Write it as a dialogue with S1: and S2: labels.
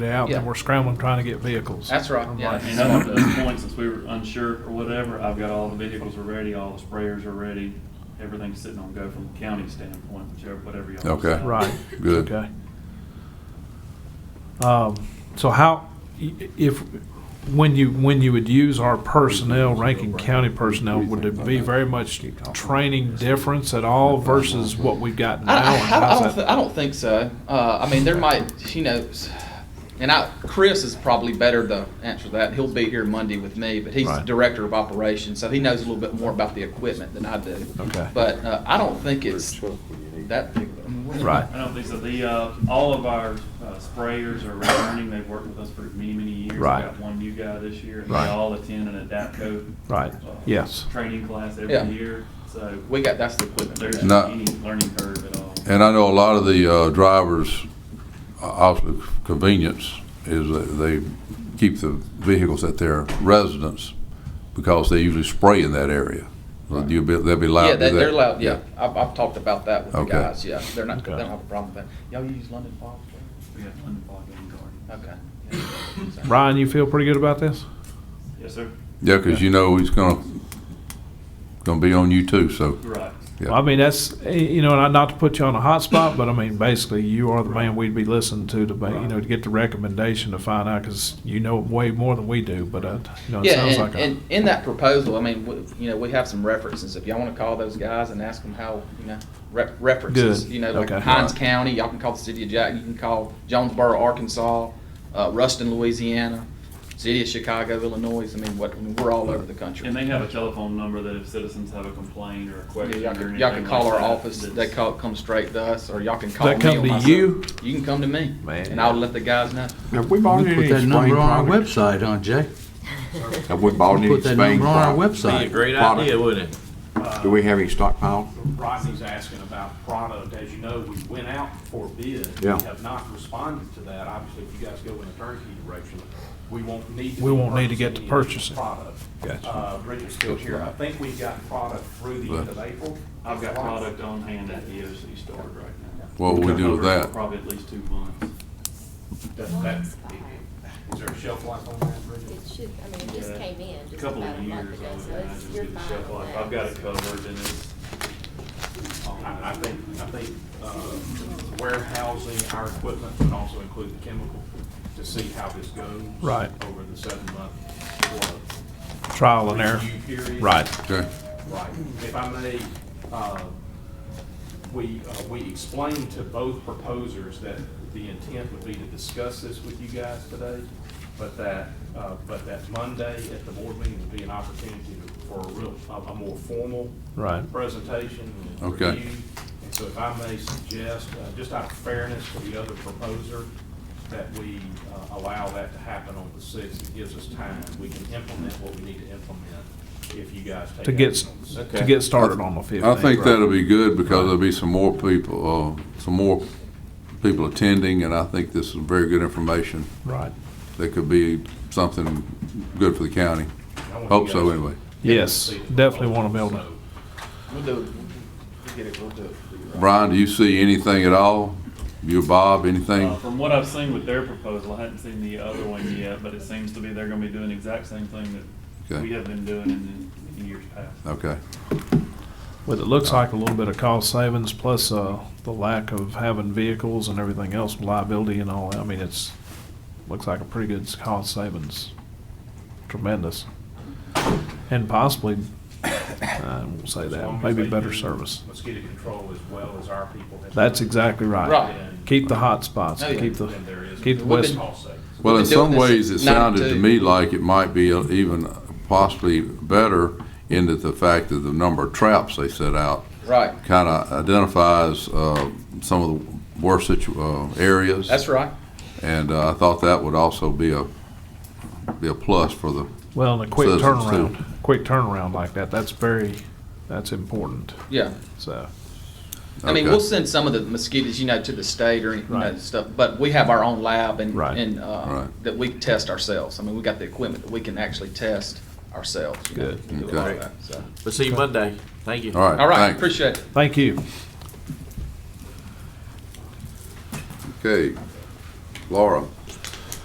S1: out,
S2: Yeah.
S1: and we're scrambling trying to get vehicles.
S2: That's right,
S1: I'm
S2: yeah.
S1: like,
S3: And up to this point, since we were unsure or whatever, I've got all the vehicles are ready, all the sprayers are ready, everything's sitting on go from a county standpoint, whichever, whatever y'all.
S4: Okay.
S3: decide.
S1: Right.
S4: Good.
S1: Okay. Um, so how, i- if, when you, when you would use our personnel, Rankin County personnel, would there be very much training difference at all versus what we've got now?
S2: I, I,
S1: and
S2: I,
S1: how's
S2: don't,
S1: that-
S2: th- I don't think so. Uh, I mean, there might, you know, s- and I, Chris is probably better to answer that. He'll be here Monday with me, but he's the
S1: Right.
S2: director of operations, so he knows a little bit more about the equipment than I do.
S1: Okay.
S2: But uh, I don't think it's that big. I mean, we're-
S1: Right.
S3: I don't think so. The, uh, all of our uh, sprayers are returning. They've worked with us for many, many years. We've
S1: Right.
S3: got one new guy this year, and they
S1: Right.
S3: all attend an ADAPCO.
S1: Right.
S3: uh,
S1: Yes.
S3: Training class
S2: Yeah.
S3: every year, so
S2: We got that's the equipment.
S3: there's
S2: There's,
S4: No.
S3: any learning curve at all.
S4: And I know a lot of the uh, drivers, uh, obviously convenience is that they keep the vehicles at their residence because they usually spray in that area. So You'll be, they'll be allowed
S2: yeah,
S4: to do
S2: they,
S4: that.
S2: they're loud. Yeah, I've, I've talked about that with
S4: Okay.
S2: the guys. Yeah, they're not.
S1: Okay.
S2: They don't have a problem with that. Y'all use London Fog?
S3: We have one block in Garden.
S2: Okay.
S1: Ryan, you feel pretty good about this?
S3: Yes, sir.
S4: Yeah, because you know he's gonna, gonna be on you too, so,
S3: Right.
S4: yeah.
S1: Well, I mean, that's, eh, you know, and I- not to put you on a hot spot, but I mean, basically, you are the man we'd be listening to to, ba- you know, to get the recommendation to find out, because you know way more than we do, but, uh, you know, it
S2: Yeah,
S1: sounds
S2: and,
S1: like. a-
S2: and in that proposal, I mean, we- you know, we have some references. If y'all want to call those guys and ask them how, you know, rep- references,
S1: Good.
S2: you know, like
S1: Okay.
S2: Hines County, y'all can call the city of Jack, you can call Jonesboro, Arkansas, uh, Ruston, Louisiana, city of Chicago, Illinois. I mean, what, I mean, we're all over the country.
S3: And they have a telephone number that if citizens have a complaint or a
S2: Yeah,
S3: question or
S2: Y'all
S3: anything
S2: can,
S3: like
S2: y'all can call our
S3: that,
S2: office. They
S3: that's-
S2: call, come straight to us, or y'all can call me.
S1: They come
S2: on
S1: to
S2: my cell.
S1: you?
S2: You can come to me.
S1: Man.
S2: And I'll let the guys know.
S5: Have we bought
S6: We
S5: any
S6: put that
S5: spring
S6: number on our
S5: products?
S6: website, huh, Jay?
S5: Have we bought
S6: We
S5: any
S6: put that
S5: spring
S6: number on our
S5: products?
S7: Be a
S6: website.
S7: great
S5: Product.
S7: idea, wouldn't it?
S5: Do we have any stockpiled?
S8: Rodney's asking about product. As you know, we went out for bid.
S5: Yeah.
S8: We have not responded to that. Obviously, if you guys go in a turnkey direction, we won't need. to
S1: We
S8: be
S1: won't need to get to
S8: purchasing any Product.
S1: Gotcha.
S8: Uh, Bridget's still here. I think we got product through the end of April.
S3: I've got product on hand at the EOC store right now.
S4: What would we do with that?
S3: Probably at least two months.
S8: Does that- Is there a shelf life on that, Bridget?
S9: It should, I mean, it just
S3: Yeah.
S9: came in
S3: A
S9: just
S3: Couple
S9: about
S3: of
S9: a month
S3: years,
S9: ago,
S3: I would
S9: so it's,
S3: imagine,
S9: you're
S3: get the
S9: fine
S3: shelf
S9: on
S3: life.
S9: that.
S3: I've got it covered and it's.
S8: I, I think, I think, uh, warehousing our equipment would also include the chemical to see how this goes.
S1: Right.
S8: Over the seven month or
S1: Trial and error.
S8: review period.
S1: Right.
S4: Okay,
S8: Right. If I may, uh, we, uh, we explained to both proposers that the intent would be to discuss this with you guys today, but that, uh, but that Monday at the board meeting would be an opportunity for a real, a a more formal
S1: Right.
S8: presentation and
S4: Okay.
S8: review. And so if I may suggest, uh, just out of fairness to the other proposer, that we uh, allow that to happen on the sixth. It gives us time. We can implement what we need to implement if you guys take
S1: To get,
S8: action on the
S1: s-
S8: sixth.
S1: to get started on the fifteenth.
S4: I think that'll be good because there'll be some more people, uh, some more people attending, and I think this is very good information.
S1: Right.
S4: That could be something good for the county.
S8: I want you
S4: Hope so,
S8: guys-
S4: anyway.
S1: Yes, definitely want to build it.
S2: We'll do it. We'll get it, we'll do it. for you, Ryan.
S4: Brian, do you see anything at all? You, Bob,
S3: Uh,
S4: anything?
S3: From what I've seen with their proposal, I hadn't seen the other one yet, but it seems to be they're gonna be doing the exact same thing that
S4: Okay.
S3: we have been doing in, in years past.
S4: Okay,
S1: Well, it looks like a little bit of cost savings plus uh, the lack of having vehicles and everything else, liability and all. that. I mean, it's, looks like a pretty good s- cost savings. Tremendous. And possibly, I won't say
S8: As long
S1: that,
S8: as
S1: maybe
S8: they
S1: better
S8: do
S1: service.
S8: Mosquito control as well as our people. have-
S1: That's exactly right.
S2: Right.
S1: Keep the hot spots,
S2: Oh, yeah.
S1: keep the,
S8: Then there is.
S1: keep the
S2: We've
S1: west.
S2: been-
S8: Cost savings.
S4: well, in
S2: We've been doing
S4: some
S2: this
S4: ways, it
S2: since
S4: sounded to
S2: 92.
S4: me like it might be even possibly better in that the fact that the number of traps they set out
S2: Right.
S4: kind of identifies uh, some of the worst situ- uh, areas.
S2: That's right.
S4: And uh, I thought that would also be a, be a plus for the,
S1: Well, and a quick
S4: Citizens,
S1: turnaround,
S4: too.
S1: quick turnaround like that, that's very, that's important,
S2: Yeah.
S1: so.
S2: I mean,
S4: Okay.
S2: we'll send some of the mosquitoes, you know, to the state or any, you know,
S1: Right.
S2: stuff, but we have our own lab and,
S1: Right.
S2: and, uh,
S4: Right.
S2: that we test ourselves. I mean, we got the equipment that we can actually test ourselves. you know,
S1: Good.
S2: we do a lot of
S4: Okay.
S2: that, so.
S7: We'll see you Monday. Thank you.
S4: all right.
S2: All right,
S4: thanks.
S2: appreciate it.
S1: Thank you.
S4: Okay. Laura?